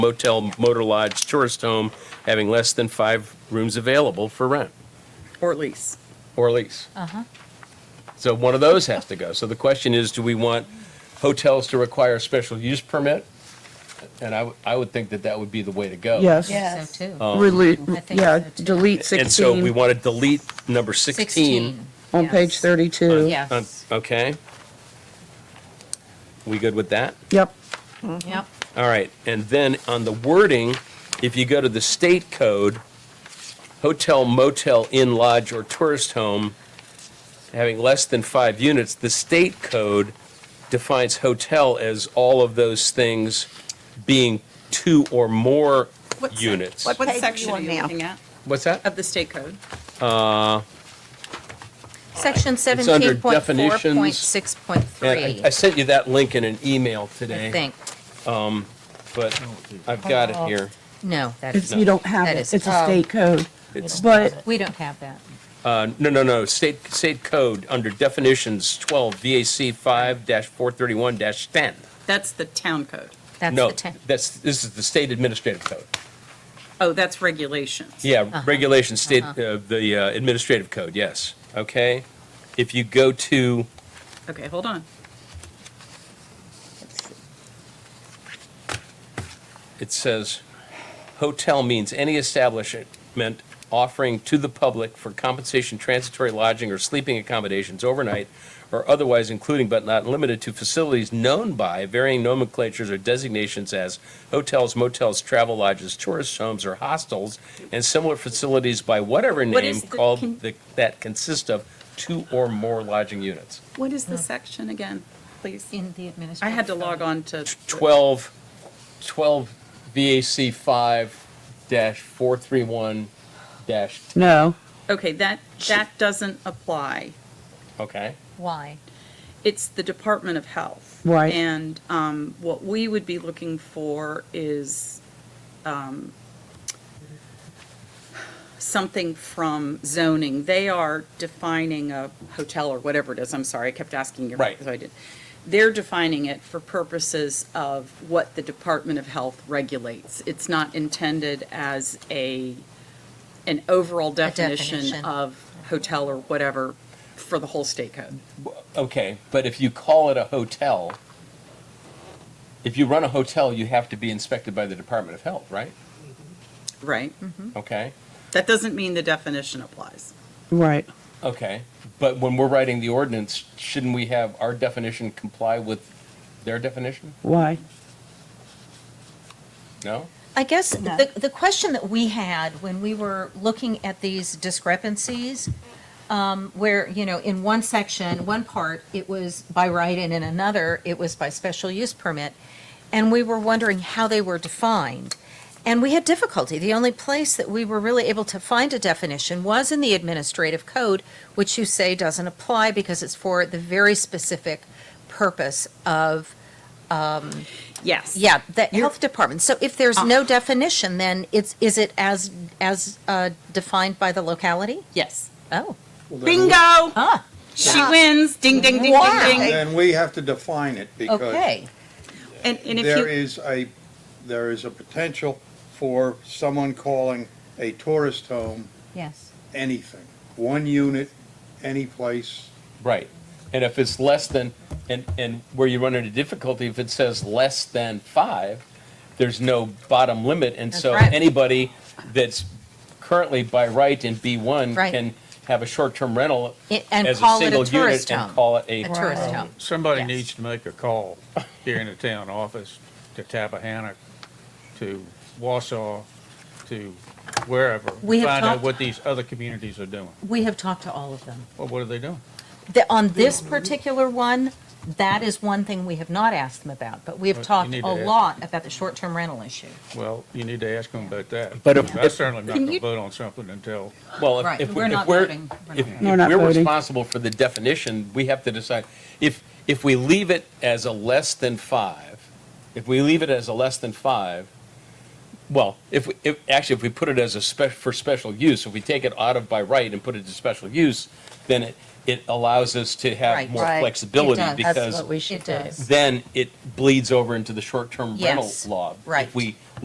motel, motor lodge, tourist home having less than five rooms available for rent Or lease. or lease. Uh-huh. So one of those has to go. So the question is, do we want hotels to require a special use permit? And I, w- I would think that that would be the way to go. Yes. Yeah. So Uh, too. Relate, I think yeah, so, too. delete Um, And so we sixteen want to delete number 16. 16. on page yes. thirty-two. Uh, Yes, Okay? We good with that? Yep, yep. All right, and then on the wording, if you go to the state code, hotel, motel, inn, lodge, or tourist home having less than five units, the state code defines hotel as all of those things being two or more What sec- units. What Page you section are want you now? looking at What's that? of the state code? Section Uh, It's under seventeen point four point six point And three, I- I sent you that link in an email I today, think. but I've got it here. No, that it's, is, you don't have That it, is- it's a oh. state code. It's- But we don't have that. Uh, No, no, no, state, state code, under definitions 12 VAC 5-431-10. That's the town code. That's No, the town. that's, this is the state administrative code. Oh, that's regulations. Uh-huh. Yeah, regulation, state, uh, the uh, administrative code, yes, okay? If you go to, Okay, hold on. it says, hotel means any establishment offering to the public for compensation transitory lodging or sleeping accommodations overnight or otherwise including but not limited to facilities known by varying nomenclatures or designations as hotels, motels, travel lodges, tourist homes, or hostels, and similar facilities by whatever What name is the- can- called the- that consist of two or more lodging units. What is the Oh. section again, please? In the administrative. I had to log code. on to. 12, 12 VAC 5 dash 431 dash, no, Okay, that, that doesn't apply. okay? Why? It's the Department of Health. Right. And um, what we would be looking for is um, something from zoning. They are defining a hotel or whatever it is, I'm sorry, I kept asking you. Right. so I did. They're defining it for purposes of what the Department of Health regulates. It's not intended as a, an overall definition definition. of hotel or whatever for the whole state code. Okay, but if you call it a hotel, if you run a hotel, you have to be inspected by the Department of Health, right? Right. Okay, That doesn't mean the definition applies. right. okay. But when we're writing the ordinance, shouldn't we have our definition comply with their definition? Why? No? I guess No. the, the question that we had when we were looking at these discrepancies, um, where, you know, in one section, one part, it was by right, and in another, it was by special use permit. And we were wondering how they were defined. And we had difficulty. The only place that we were really able to find a definition was in the administrative code, which you say doesn't apply because it's for the very specific purpose of Yes. yeah, the health department. So if there's no definition, then it's, is it as, as uh, defined by the locality? Yes. Oh, Bingo! ah, She wins. Ding, ding, ding, Wow. ding, ding. Then we have to define it because okay. And, and if there you, is a, there is a potential for someone calling a tourist home Yes. anything. One unit, any place. Right. And if it's less than, and, and where you run into difficulty, if it says less than five, there's no bottom limit, and That's so right. anybody that's currently by right in B one Right. can have a short-term rental I- and as a call it a single tourist unit and home. call it a A tourist home. Somebody Yes. needs to make a call here in the town office to Tappahannock, to Wausau, to wherever. We have Find out talked- what these other communities are doing. We have talked to all of them. Well, what are they doing? The, on this particular one, that is one thing we have not asked them about, but we have Well, you talked need a to ask. lot about the short-term rental issue. Well, you need to ask them about that. But if- I certainly am not Can going you- to vote on something until, Well, if- Right, if, we're we- not if we're, voting. We're not if voting. if We're not we're voting. responsible for the definition, we have to decide. If, if we leave it as a less than five, if we leave it as a less than five, well, if, we- if, actually, if we put it as a spec, for special use, if we take it out of by right and put it to special use, then it, it allows us to have Right. more Right. It flexibility does. because that's what we It should do. does. then it bleeds over into the short-term rental Yes, law. right. If we